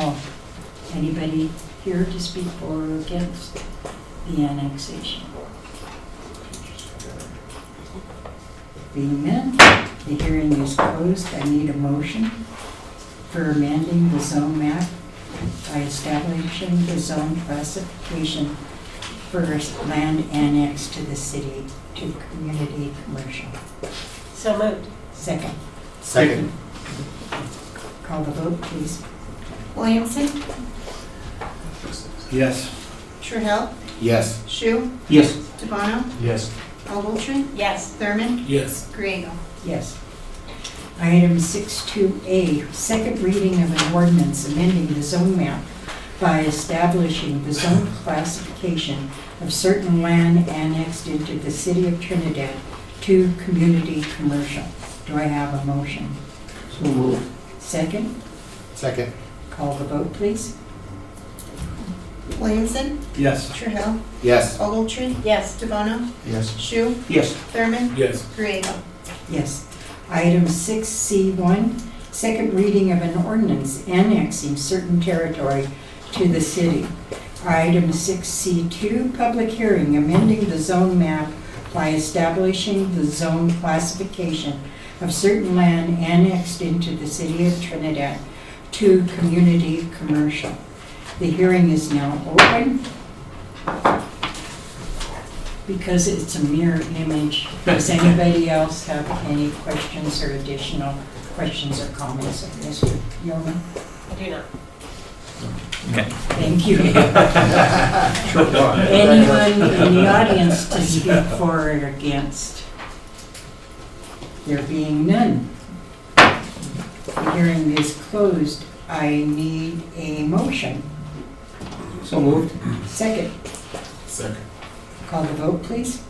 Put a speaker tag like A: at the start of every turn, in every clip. A: Oh, anybody here to speak for or against the annexation? Being none, the hearing is closed. I need a motion for amending the zone map by establishing the zone classification for land annexed to the city to community commercial.
B: So moved.
A: Second,
C: Second.
A: call the vote, please.
B: Williamson,
C: Yes.
B: Trahell,
C: Yes.
B: Shu,
C: Yes.
B: Devono,
C: Yes.
B: Ogletree. Yes. Thurman,
C: Yes.
B: Griego.
A: Yes. Item 62A, second reading of an ordinance amending the zone map by establishing the zone classification of certain land annexed into the city of Trinidad to community commercial. Do I have a motion?
C: So moved.
A: Second,
C: Second.
A: call the vote, please.
B: Williamson,
C: Yes.
B: Trahell,
C: Yes.
B: Ogletree. Yes. Devono,
C: Yes.
B: Shu,
C: Yes.
B: Thurman,
C: Yes.
B: Griego.
A: Yes. Item 6C1, second reading of an ordinance annexing certain territory to the city. Item 6C2, public hearing, amending the zone map by establishing the zone classification of certain land annexed into the city of Trinidad to community commercial. The hearing is now open because it's a mirror image. Does anybody else have any questions or additional questions or comments of Mr. Yeoman?
B: I do not.
A: Thank you. Anyone in the audience to speak for or against? There being none. The hearing is closed. I need a motion.
C: So moved.
A: Second,
C: Second.
A: call the vote, please.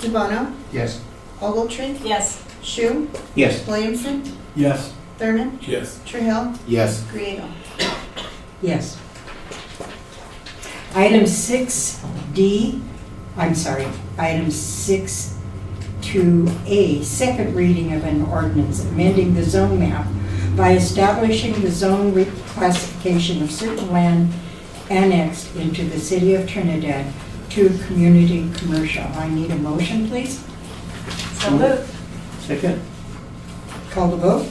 B: Devono,
C: Yes.
B: Ogletree. Yes. Shu,
C: Yes.
B: Williamson,
C: Yes.
B: Thurman,
C: Yes.
B: Trahell,
C: Yes.
B: Griego.
A: Yes. Item 6D, I'm sorry, item 6-2A, second reading of an ordinance amending the zone map by establishing the zone reclassification of certain land annexed into the city of Trinidad to community commercial. I need a motion, please.
B: So moved.
C: Second.
A: Call the vote.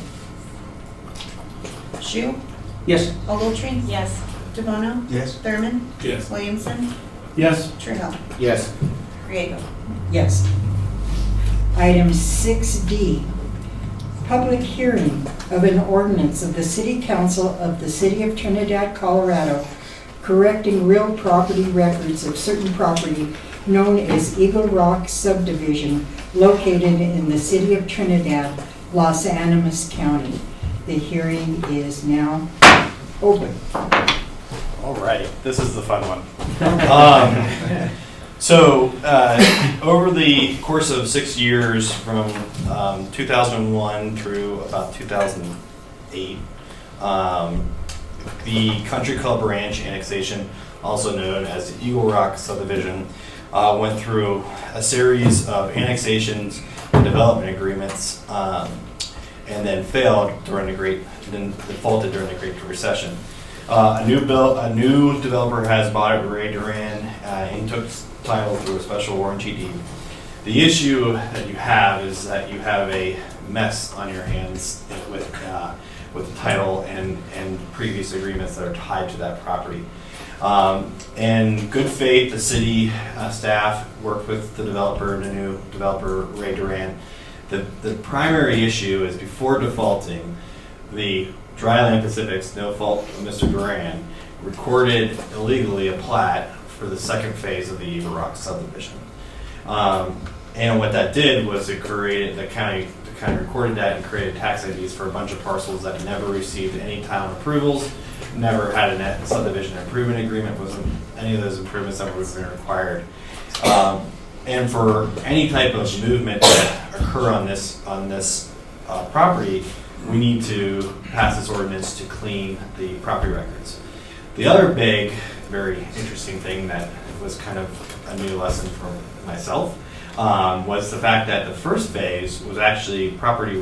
B: Shu,
C: Yes.
B: Ogletree. Yes. Devono,
C: Yes.
B: Thurman,
D: Yes.
B: Williamson,
C: Yes.
B: Trahell,
C: Yes.
B: Griego.
A: Yes. Item 6D, public hearing of an ordinance of the City Council of the City of Trinidad, Colorado, correcting real property records of certain property known as Eagle Rock subdivision located in the City of Trinidad, Los Animas County. The hearing is now open.
E: All right, this is the fun one. um, so, uh, over the course of six years, from um, 2001 through about 2008, um, the Country Club Ranch annexation, also known as the Eagle Rock subdivision, uh, went through a series of annexations and development agreements, um, and then failed during the Great, then defaulted during the Great Recession. Uh, a new bill, a new developer has bought it, Ray Duran, uh, and took s- title through a special warranty deed. The issue that you have is that you have a mess on your hands with, uh, with the title and, and previous agreements that are tied to that property. Um, in good faith, the city uh, staff worked with the developer, the new developer, Ray Duran. The, the primary issue is before defaulting, the Dryland Pacific's no fault of Mr. Duran recorded illegally a plat for the second phase of the Eagle Rock subdivision. Um, and what that did was it created the county the county recorded that and created tax IDs for a bunch of parcels that never received any town approvals, never had a subdivision improvement agreement, wasn't any of those improvements that would have been required. Um, and for any type of movement that occur on this on this uh, property, we need to pass this ordinance to clean the property records. The other big, very interesting thing that was kind of a new lesson for myself um, was the fact that the first phase was actually property